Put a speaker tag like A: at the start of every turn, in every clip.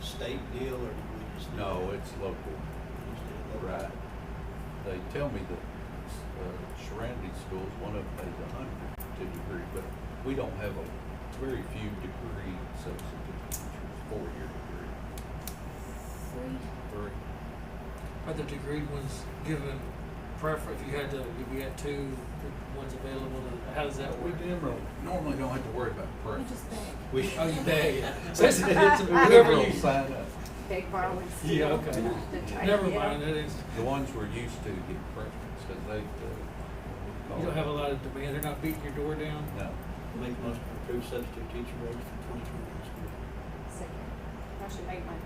A: state deal, or do we just? do
B: No,
A: that?
B: it's local.
A: We just do it local?
B: Right. They tell me that uh, surrounding schools, one of them pays a hundred to degree, but we don't have a, very few degree substitute teachers, four-year degree.
C: Three.
B: Three.
D: Are the degree ones given preference? If you had to, if you had two, the ones available, to, how does that
B: We
D: work?
B: generally, normally don't have to worry about
C: We
B: preference.
C: just beg.
B: We,
D: Oh, you beg it. So it's, it's whoever
B: whoever
D: you.
B: will sign up,
E: Big borrow and steal.
D: Yeah, okay.
E: The type,
D: Never
E: yeah.
D: mind. That is,
B: the ones we're used to get preference, because they, uh.
D: you don't have a lot of demand. They're not beating your door down.
B: No.
A: Make most approved substitute teacher rates for twenty twenty-one school. year.
E: Second. Motion made by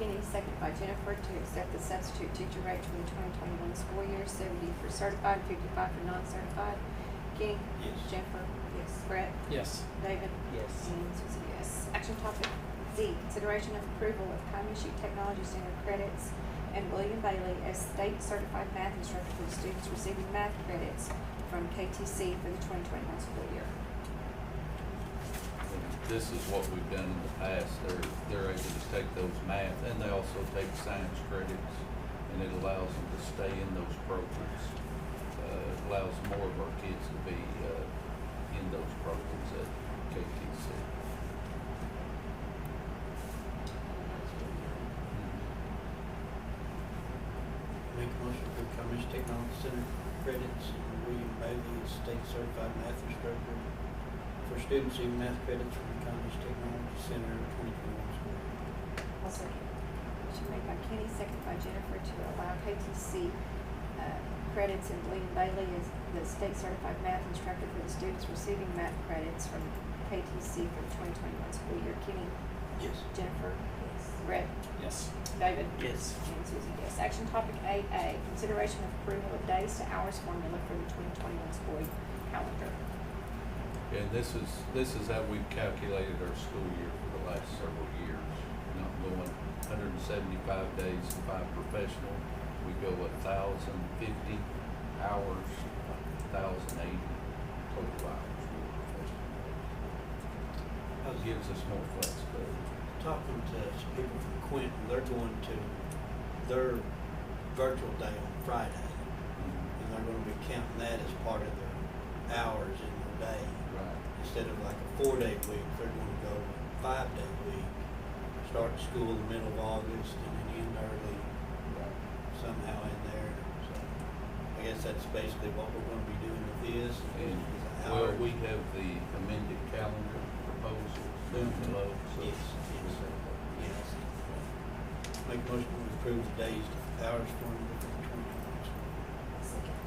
E: Kenny, second by Jennifer to accept the substitute teacher rates for the twenty twenty-one school year, seventy for certified, fifty-five for non-certified. Kenny?
A: Yes.
E: Jennifer? Yes. Brett?
D: Yes.
E: David?
D: Yes.
E: And Susie, yes. Action topic Z, consideration of approval of Pine Shoot Technology Center credits and William Bailey as state certified math instructor for the students receiving math credits from KTC for the twenty twenty-one school year.
B: And This is what we've done in the past, they're, they're able to take those math, and they also take science credits, and it allows them to stay in those programs. Uh, it allows more of our kids to be, uh, in those programs at KTC.
D: Mm-hmm.
A: Make a motion to approve Cummings Technology Center credits and William Bailey as state certified math instructor for students in math credits from Cummings Technology Center twenty twenty-one school. year.
E: I'll second. Motion made by Kenny, second by Jennifer to allow KTC uh, credits and William Bailey as the state certified math instructor for the students receiving math credits from KTC for the twenty twenty-one school year. Kenny,
A: Yes.
E: Jennifer, Brett,
D: Yes.
E: David,
D: Yes.
E: and Susie, yes. Action topic eight A, consideration of approval of days to hours formula for the twenty twenty-one school calendar.
B: And this is, this is how we've calculated our school year for the last several years, not going hundred and seventy-five days and five professional. We go a thousand fifty hours, thousand eighty total hours for professional.
A: I was
B: That gives us more flexibility.
A: talking to some people from Quinton, they're going to their virtual day on Friday, and they're gonna be counting that as part of their hours in their day.
B: Right.
A: Instead of like a four-day week, they're gonna go five-day week, start school in the middle of August and then end early somehow in there. So I guess that's basically what we're gonna be doing with this. is
B: And,
A: an
B: well,
A: hour.
B: we have the amended calendar proposal down below, so.
A: Yes, yes. Yes. Make a motion to approve the days, hours formula for the twenty twenty-one.
E: Second.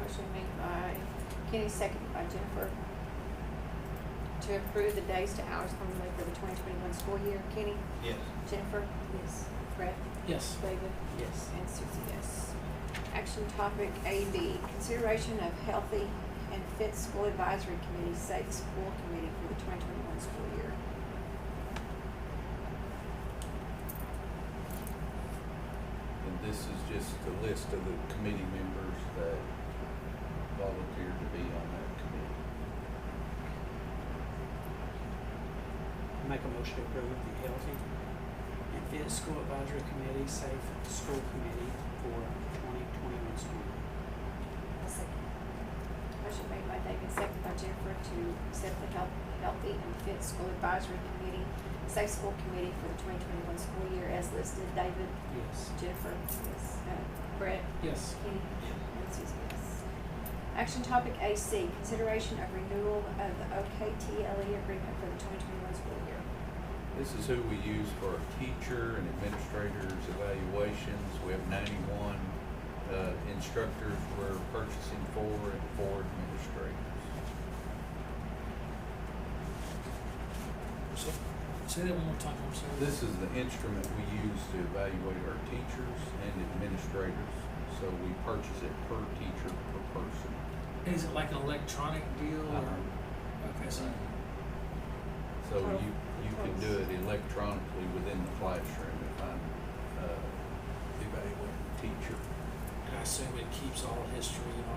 E: Motion made by Kenny, seconded by Jennifer. To approve the days to hours formula for the twenty twenty-one school year. Kenny?
A: Yes.
E: Jennifer? Yes. Brett?
D: Yes.
E: David?
D: Yes.
E: And Susie, yes. Action topic A B, consideration of healthy and fit school advisory committee, safe school committee for the twenty twenty-one school year.
B: And this is just a list of the committee members that volunteered to be on that committee.
F: Make a motion to approve the healthy and fit school advisory committee, safe school committee for twenty twenty-one school. year.
E: I'll second. Motion made by David, second by Jennifer to accept the Health, Healthy and Fit School Advisory Committee, Safe School Committee for the twenty twenty-one school year as listed. David,
F: Yes.
E: Jennifer, yes, uh, Brett,
D: Yes.
E: Kenny, and Susie, yes. Action topic AC, consideration of renewal of the OKTLE E agreement for the twenty twenty-one school year.
B: This is who we use for our teacher and administrators evaluations. We have ninety-one, uh, instructors we're purchasing for and four administrators.
D: So, say that one more time. I'm sorry.
B: This is the instrument we use to evaluate our teachers and administrators. So we purchase it per teacher, per person.
D: Is it like an electronic deal or?
B: Uh-huh.
D: Okay, so
B: So you, you can do it electronically within the classroom if I'm, uh, evaluating a teacher.
D: I assume it keeps all history and all